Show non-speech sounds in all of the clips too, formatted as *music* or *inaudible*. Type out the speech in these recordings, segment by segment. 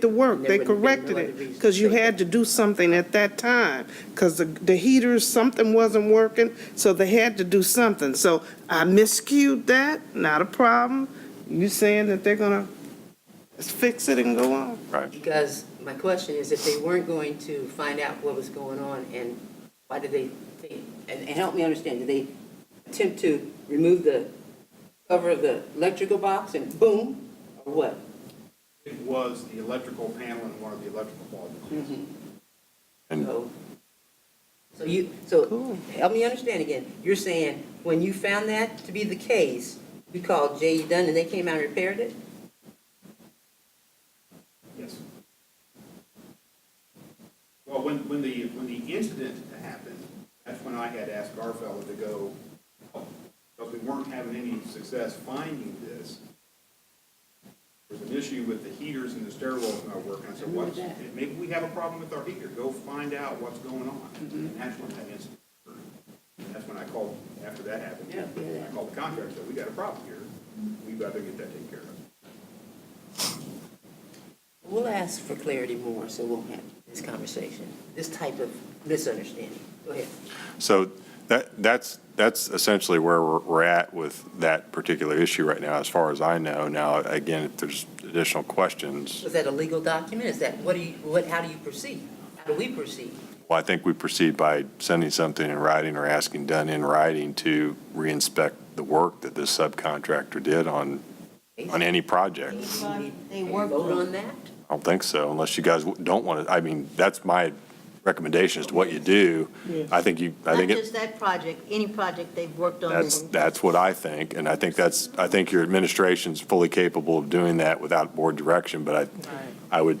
the work, they There wouldn't have been corrected no other it, reason to because you say that. had to do something at that time, because the, the heaters, something wasn't working, so they had to do something. So I miscued that, not a problem. You saying that they're gonna fix it and go on? Because my question is, if they weren't going to find out what was going on, and why did they, think- and, and help me understand, did they attempt to remove the cover of the electrical box and boom, or what? It was the electrical panel and one of the electrical plugs. So, so you, so, help me understand again, you're saying, when you found that to be the case, you called J E Dunn and they came out and repaired it? Yes. Well, when, when the, when the incident happened, that's when I had asked Garfeld to go, help, because we weren't having any success finding this. There's an issue with the heaters and the stairwells not working. I said, what's, maybe we have a problem with our heater. Go find out what's going on. And that's when that incident occurred. That's when I called, after that happened, I called the contractor, said, we got a problem here. We've got to get that taken care of. We'll ask for clarity more, so we'll have this conversation, this type of misunderstanding. Go ahead. So that, that's, that's essentially where we're, we're at with that particular issue right now, as far as I know. Now, again, if there's additional questions, Is that a legal document? Is that, what do you, what, how do you proceed? How do we proceed? well, I think we proceed by sending something in writing or asking done in writing to reinspect the work that this subcontractor did on, on any project. Anybody, they Can you work Vote on on that? I don't think so, unless you guys don't want to, I mean, that's my recommendation as to what you do. I think you, I Not think it. just that project, any project they've worked on. That's, that's what I think, and I think that's, I think your administration's fully capable of doing that without board direction, but I, I would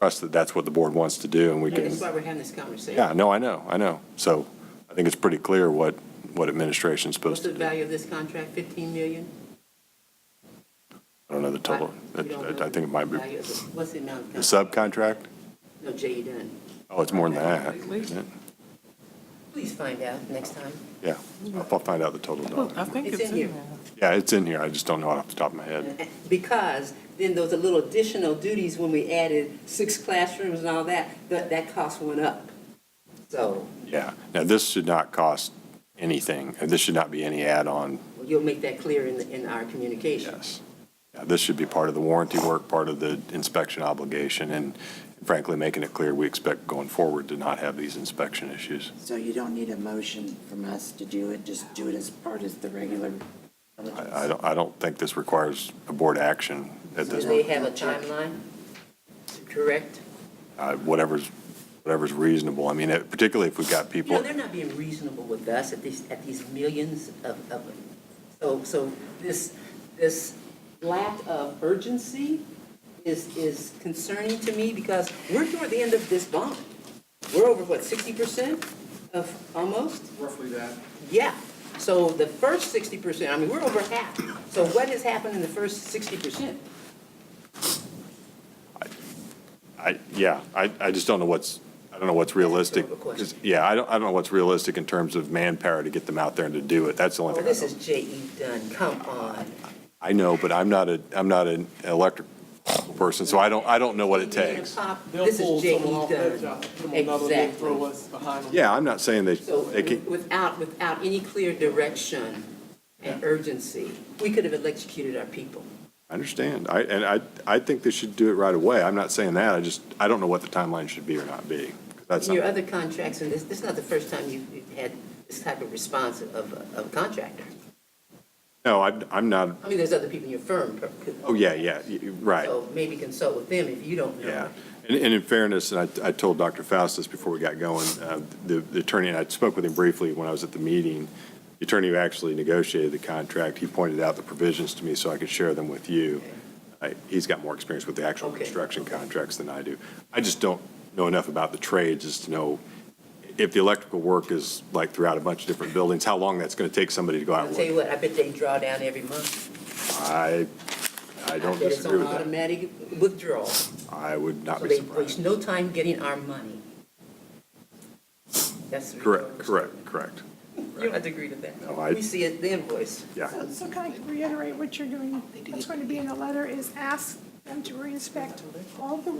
trust that that's what the board wants to do, and we can, That's why we're having this conversation. yeah, no, I know, I know. So I think it's pretty clear what, what administration's What's supposed the to do. I value of this contract? Fifteen million? don't know the total, I You don't know I think it might be, the value of the- What's the amount? of the contract? subcontract? No, J E Dunn. Oh, it's more than that, isn't it? Please find out next time. Yeah, I'll I'll find out the total dollar. think It's in here. Yeah, it's in here, I just don't know it off the top of my head. *laughs* Because then those little additional duties, when we added six classrooms and all that, that, that cost went up. So Yeah, now this should not cost anything, and this should not be any add-on you'll make that clear in, the- in our communication. Yes. Yeah, This should be part of the warranty work, part of the inspection obligation, and frankly, making it clear we expect going forward to not have these inspection issues. So you don't need a motion from us to do it, just do it as part of the regular diligence? I I don't, I don't think this requires a board action at Do this, they have a timeline to correct? uh, whatever's, whatever's reasonable. I mean, it- particularly if we've got You know, people, they're not being reasonable with us at these, at these millions of, of, so, so this, this lack of urgency is, is concerning to me because we're toward the end of this bond. We're over, what, sixty percent of, almost? Roughly that. Yeah, so the first sixty percent, I mean, we're over half. So what has happened in the first sixty percent? I, yeah, I, I just don't know what's, I don't know what's realistic. That's a good question. Yeah, I don't, I don't know what's realistic in terms of manpower to get them out there and to do it. That's the only Oh, thing I this know. is J E Dunn, come on. I know, but I'm not a, I'm not an electric person, so I don't, I don't know what it takes. They'll This pull is J E someone off that Dunn. job, put them on another, they'll Exactly. throw us behind them. Yeah, I'm not saying they, So they can, without, without any clear direction and urgency, we could have electrocuted our people. I understand. I, and I, I think they should do it right away. I'm not saying that. I just, I don't know what the timeline should be or not be. That's Your not, other contracts, and this, this is not the first time you've you've had this type of response of, a- of a contractor. no, I, I'm not, I mean, there's other people in your firm. per- could- oh, yeah, yeah, y- y- right, So maybe consult with them if you don't know. yeah. And, and in fairness, and I, I told Dr. Faustus before we got going, uh, the the attorney, and I spoke with him briefly when I was at the meeting. The attorney who actually negotiated the contract, he pointed out the provisions to me so I could share them with you. I- He's got more experience with the actual Okay. construction contracts than I do. I just don't know enough about the trades as to know if the electrical work is like throughout a bunch of different buildings, how long that's going to take somebody to go out I'll and tell you look. what, I bet they draw down every month. I, I don't bet disagree with It's on that. automatic withdrawal, so I would not be they waste surprised. no time getting our money. That's. the Correct, result. correct, correct. You don't have to agree to that. No, I- We see it, the invoice. Yeah, So- So can I reiterate what you're doing? What's going to be in the letter is ask them to reinspect all the